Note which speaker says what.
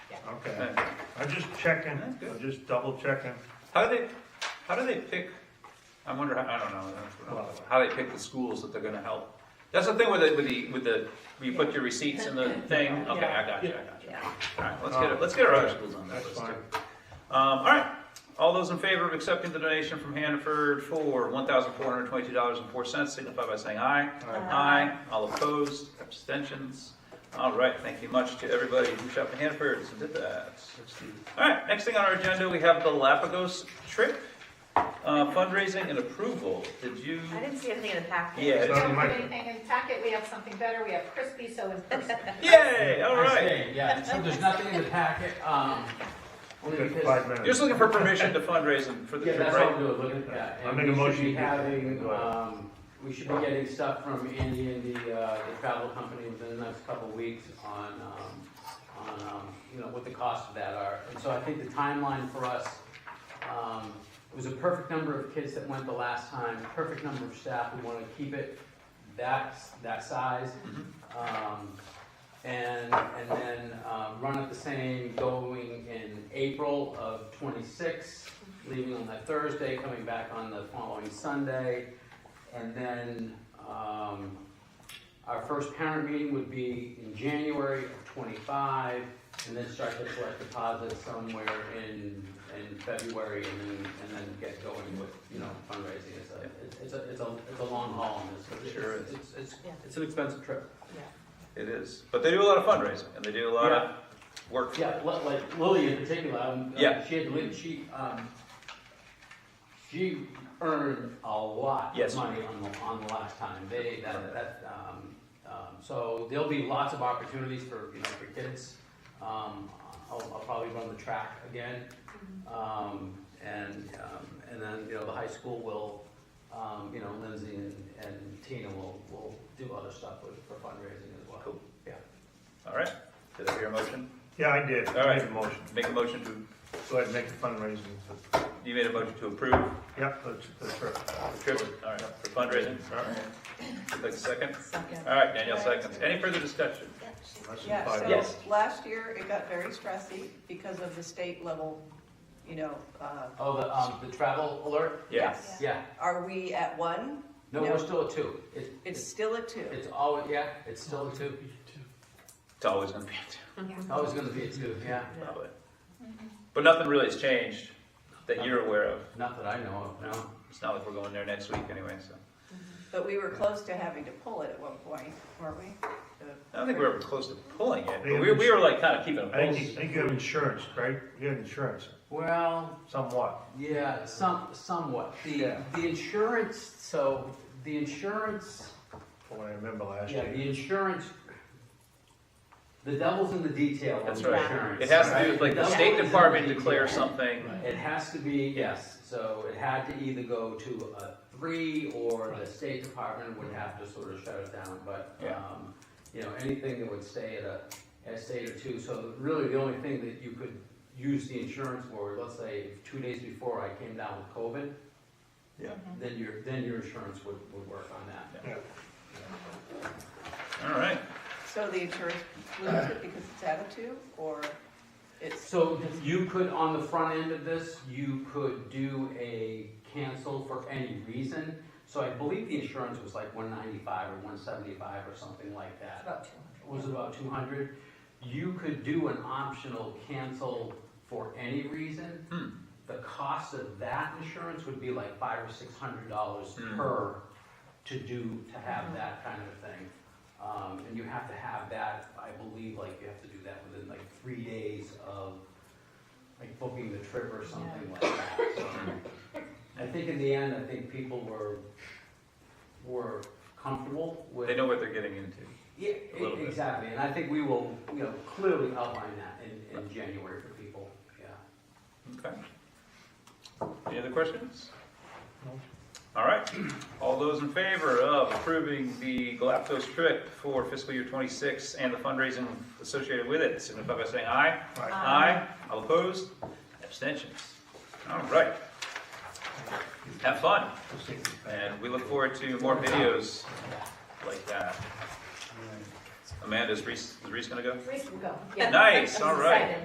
Speaker 1: Okay, I'm just checking,
Speaker 2: That's good.
Speaker 1: I'm just double checking.
Speaker 2: How do they, how do they pick, I wonder, how I don't know, that's what I'm talking about. how they pick the schools that they're gonna help? That's the thing with the, with the, with the, where you put your receipts in the thing, okay, I got you, I got you. All right, let's get, it- let's get our other schools on that
Speaker 1: Um, That's
Speaker 2: list
Speaker 1: fine.
Speaker 2: too. Um, all right, all those in favor of accepting the donation from Hannaford for one thousand four hundred twenty-two dollars and four cents, signify by saying aye. Aye. All opposed, abstentions. All right, thank you much to everybody who shopped in Hannaford and did that. All right, next thing on our agenda, we have the Galapagos trip, uh, fundraising and approval. Did you?
Speaker 3: I didn't see anything in the packet.
Speaker 2: Yeah.
Speaker 1: It's
Speaker 2: it's-
Speaker 1: not in
Speaker 4: Don't
Speaker 1: my-
Speaker 4: put anything in packet, we have something better, we have crispy, so in person.
Speaker 2: Yay, all
Speaker 5: I
Speaker 2: right.
Speaker 5: stay, Yeah, so there's nothing in the packet, um, only
Speaker 1: Good,
Speaker 5: because.
Speaker 1: five
Speaker 2: You're
Speaker 1: minutes.
Speaker 2: just looking for permission to fundraise and- for the
Speaker 5: Yeah,
Speaker 2: trip,
Speaker 5: that's all
Speaker 2: right?
Speaker 5: good, look at that.
Speaker 1: I'll
Speaker 5: And
Speaker 1: make a
Speaker 5: we should
Speaker 1: motion
Speaker 5: be
Speaker 1: to-
Speaker 5: having, um, we should be getting stuff from Andy and the, uh, the travel company within the next couple of weeks on, um, on, um, you know, what the costs of that are. And so I think the timeline for us, um, it was a perfect number of kids that went the last time, perfect number of staff, we wanna keep it that, that size.
Speaker 2: Mm-hmm.
Speaker 5: Um, and, and then, um, run at the same going in April of twenty-six, leaving on that Thursday, coming back on the following Sunday. And then, um, our first parent meeting would be in January of twenty-five, and then start to collect deposits somewhere in, in February, and then, and then get going with, you know, fundraising. It's a, it's- it's a, it's a, it's a long haul, and it's,
Speaker 2: Sure
Speaker 5: it's,
Speaker 2: is.
Speaker 5: it's, it's,
Speaker 3: Yeah.
Speaker 5: it's an expensive trip.
Speaker 2: It is, but they do a lot of fundraising and they do a lot of work. for it.
Speaker 5: Yeah, li- like Lily in particular, um,
Speaker 2: Yeah.
Speaker 5: she had, li- she, um, she earned a lot
Speaker 2: Yes.
Speaker 5: of money on the, on the last time, they, that, that, um, um, so there'll be lots of opportunities for, you know, for kids. Um, I'll, I'll probably run the track again, um, and, um, and then, you know, the high school will, um, you know, Lindsay and, and Tina will, will do other stuff with, for fundraising as well.
Speaker 2: Cool.
Speaker 5: Yeah.
Speaker 2: All right, did I hear a motion?
Speaker 1: Yeah, I did,
Speaker 2: All
Speaker 1: I
Speaker 2: right.
Speaker 1: made a motion,
Speaker 2: Make a motion to,
Speaker 1: go ahead and make the fundraising.
Speaker 2: you made a motion to approve
Speaker 1: Yep, that's, that's right.
Speaker 2: the trip, all right, for fundraising. All right. Would like a second?
Speaker 6: Second.
Speaker 2: All right, Danielle seconds. Any further discussion?
Speaker 1: Less than five
Speaker 6: Yeah,
Speaker 1: minutes.
Speaker 6: so last year it got very stressy because of the state level, you know, uh,
Speaker 5: Oh, the, um, the travel alert?
Speaker 2: Yeah.
Speaker 6: yes.
Speaker 5: Yeah,
Speaker 6: Are we at one?
Speaker 5: no,
Speaker 6: No.
Speaker 5: we're still at two. It's,
Speaker 6: It's
Speaker 5: it's,
Speaker 6: still at two.
Speaker 5: it's always, yeah, it's still a two.
Speaker 2: It's always gonna be a two.
Speaker 5: It's always gonna be a two, yeah.
Speaker 2: Probably. But nothing really has changed that you're aware of.
Speaker 5: Not that I know of, no.
Speaker 2: It's not like we're going there next week anyway, so.
Speaker 6: But we were close to having to pull it at one point, weren't we?
Speaker 2: I don't think we were ever close to pulling it, but
Speaker 1: Yeah,
Speaker 2: we,
Speaker 1: we
Speaker 2: we were like kind of keeping a
Speaker 1: I think, you- I
Speaker 2: pulse.
Speaker 1: think you have insurance, right? You have insurance,
Speaker 5: Well,
Speaker 1: somewhat.
Speaker 5: yeah, some, somewhat. The,
Speaker 1: Yeah.
Speaker 5: the insurance, so, the insurance,
Speaker 1: from what I remember last
Speaker 5: yeah,
Speaker 1: year.
Speaker 5: the insurance, the devil's in the detail on
Speaker 2: That's
Speaker 5: the
Speaker 2: right.
Speaker 5: insurance.
Speaker 2: It has to do
Speaker 5: right?
Speaker 2: with like the
Speaker 5: devil's
Speaker 2: State
Speaker 5: in
Speaker 2: Department
Speaker 5: detail.
Speaker 2: declares something.
Speaker 5: It has to be, yes, so it had to either go to a three, or the State Department would have to sort of shut it down, but,
Speaker 2: Yeah.
Speaker 5: um, you know, anything that would stay at a, at a state or two, so really the only thing that you could use the insurance for, let's say, if two days before I came down with COVID.
Speaker 2: Yeah.
Speaker 5: Then your, then your insurance would, would work on that.
Speaker 2: All right.
Speaker 6: So the insurance loses it because it's at a two, or it's,
Speaker 5: So you could, on the front end of this, you could do a cancel for any reason. So I believe the insurance was like one ninety-five or one seventy-five or something like that.
Speaker 4: About two.
Speaker 5: It Was about two hundred. You could do an optional cancel for any reason.
Speaker 2: Hmm.
Speaker 5: The cost of that insurance would be like five or six hundred dollars
Speaker 2: Hmm.
Speaker 5: per to do, to have that kind of thing. Um, and you have to have that, I believe, like, you have to do that within like three days of, like, booking the trip or something like that. So, I think in the end, I think people were, were comfortable with.
Speaker 2: They know what they're getting into.
Speaker 5: Yeah,
Speaker 2: A little
Speaker 5: e-
Speaker 2: bit.
Speaker 5: exactly, and I think we will, you know, clearly outline that in, in January for people, yeah.
Speaker 2: Okay. Any other questions? All right. All those in favor of approving the Galapagos trip for fiscal year 26 and the fundraising associated with it, signify by saying aye.
Speaker 1: Right.
Speaker 2: Aye. All opposed? Abstentions? All right. Have fun,
Speaker 1: Let's see.
Speaker 2: and we look forward to more videos like that. Amanda, is Reese, is Reese gonna go?
Speaker 4: Reese will go. Yeah.
Speaker 2: Nice,
Speaker 4: He's
Speaker 2: all right.
Speaker 4: excited.